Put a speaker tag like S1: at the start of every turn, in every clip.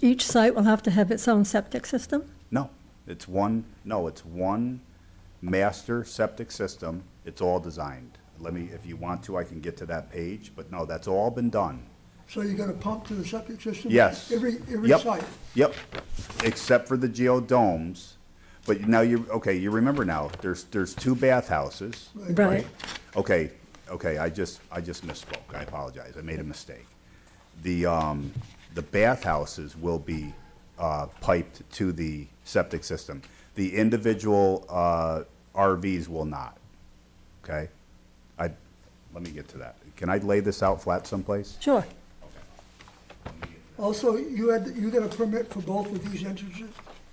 S1: Each site will have to have its own septic system?
S2: No, it's one, no, it's one master septic system. It's all designed. Let me, if you want to, I can get to that page, but no, that's all been done.
S3: So you're gonna pump to the septic system?
S2: Yes.
S3: Every, every
S2: Yep,
S3: site?
S2: Yep, except for the geodomes. But now you, okay, you remember now, there's, there's two bathhouses.
S1: Right.
S2: Okay, okay, I just, I just misspoke. I apologize. I made a mistake. The, um, the bathhouses will be, uh, piped to the septic system. The individual, uh, RVs will not, okay? I, let me get to that. Can I lay this out flat someplace?
S1: Sure.
S3: Also, you had, you got a permit for both of these entrances?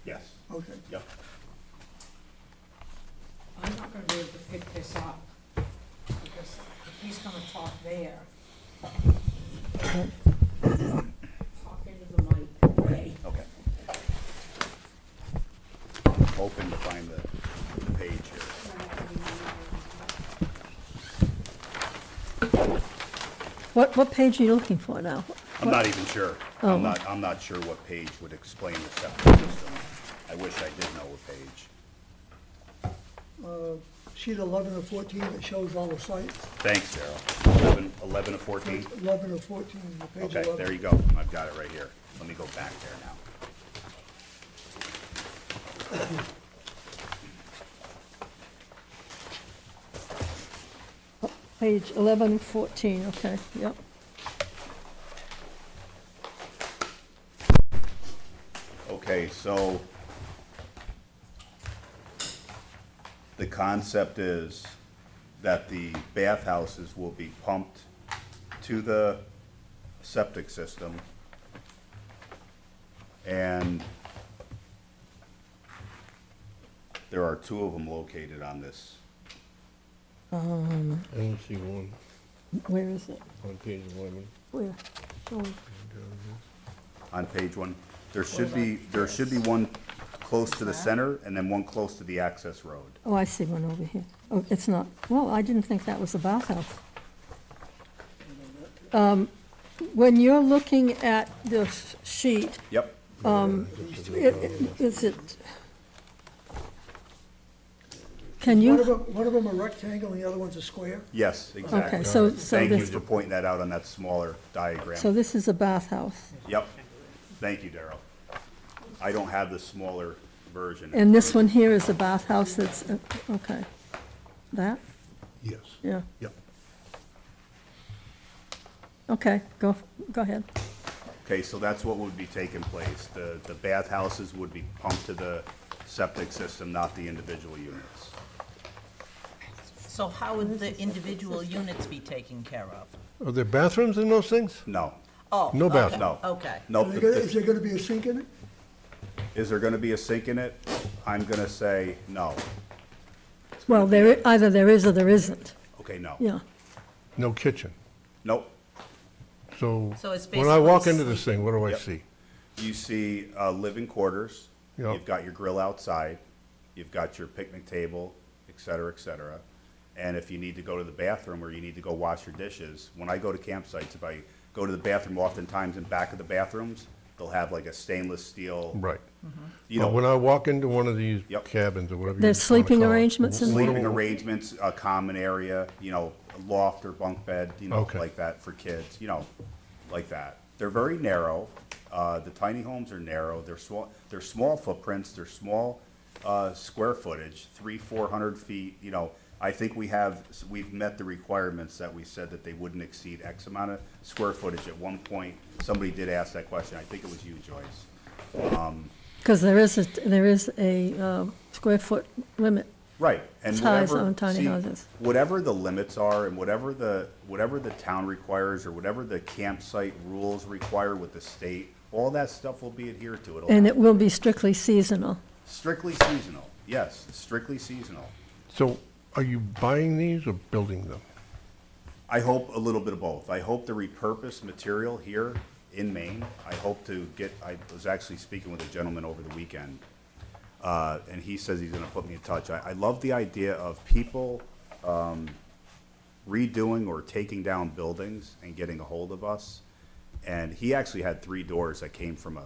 S2: Yes.
S3: Okay.
S2: Yep.
S4: I'm not gonna be able to pick this up, because if he's gonna talk there. Talk into the mic, okay?
S2: Okay. Hoping to find the, the page here.
S1: What, what page are you looking for now?
S2: I'm not even sure.
S1: Oh.
S2: I'm not, I'm not sure what page would explain the septic system. I wish I did know what page.
S3: Sheet eleven or fourteen that shows all the sites,
S2: Thanks, Daryl. Eleven, eleven of fourteen?
S3: eleven or fourteen, the page
S2: Okay,
S3: eleven.
S2: there you go. I've got it right here. Let me go back there now.
S1: Page 11, 14, okay, yep.
S2: Okay, so the concept is that the bathhouses will be pumped to the septic system and there are two of them located on this.
S5: I only see one
S1: Where is it?
S5: on page eleven.
S1: Where? Oh,
S2: on page one. There should be, there should be one close to the center and then one close to the access road.
S1: Oh, I see one over here. Oh, it's not, well, I didn't think that was a bathhouse. Um, When you're looking at this sheet,
S2: Yep,
S1: it- it- is it? Can
S3: One of
S1: you,
S3: them, one of them a rectangle and the other one's a square?
S2: yes,
S1: okay,
S2: exactly.
S1: so, so
S2: Thank you
S1: this,
S2: for pointing that out on that smaller
S1: so
S2: diagram.
S1: this is a bathhouse.
S2: Yep, thank you, Daryl. I don't have the smaller version.
S1: And this one here is a bathhouse that's, uh, okay. That,
S5: Yes.
S1: yeah,
S5: Yep.
S1: okay, go, go ahead.
S2: Okay, so that's what would be taking place. The, the bathhouses would be pumped to the septic system, not the individual units.
S6: So how would the individual units be taken care of?
S5: Are there bathrooms in those things?
S2: No,
S6: Oh.
S5: No
S6: okay,
S5: bathroom.
S2: no.
S6: Okay.
S2: No,
S3: Is
S2: the-
S3: there gonna-
S2: the-
S3: is there gonna be a sink in it?
S2: Is there gonna be a sink in it? I'm gonna say no.
S1: Well, there, i- either there is or there isn't,
S2: Okay, no.
S1: yeah.
S5: No kitchen.
S2: Nope.
S5: So
S6: So it's
S5: when I walk
S6: basically
S5: into this thing, what do I
S2: Yep.
S5: see?
S2: You see, uh, living quarters.
S5: Yeah.
S2: You've got your grill outside. You've got your picnic table, et cetera, et cetera. And if you need to go to the bathroom or you need to go wash your dishes, when I go to campsites, if I go to the bathroom, oftentimes in back of the bathrooms, they'll have like a stainless steel.
S5: Right.
S6: Mm-hmm.
S5: Oh,
S2: You
S5: But when
S2: know,
S5: I walk into one of these
S2: Yep.
S5: cabins or whatever. you
S1: There's
S5: wanna
S1: sleeping
S5: call it,
S1: arrangements in there?
S5: what do-
S2: sleeping arrangements, a common area, you know, a loft or bunk bed, you know,
S5: Okay.
S2: like that for kids, you know, like that. They're very narrow. Uh, the tiny homes are narrow. They're small, they're small footprints. They're small, uh, square footage, three, four hundred feet, you know. I think we have, we've met the requirements that we said that they wouldn't exceed X amount of square footage. At one point, somebody did ask that question. I think it was you, Joyce.
S1: Because there is, a there is a um, square foot limit.
S2: Right, and
S1: Size
S2: whatever,
S1: on tiny
S2: see,
S1: houses.
S2: whatever the limits are and whatever the, whatever the town requires or whatever the campsite rules require with the state, all that stuff will be adhered to.
S1: And it
S2: It'll
S1: will be strictly seasonal.
S2: strictly seasonal, yes, strictly seasonal.
S5: So are you buying these or building them?
S2: I hope a little bit of both. I hope to repurpose material here in Maine. I hope to get, I was actually speaking with a gentleman over the weekend, uh, and he says he's gonna put me in touch. I, I love the idea of people, um, redoing or taking down buildings and getting a hold of us. And he actually had three doors that came from a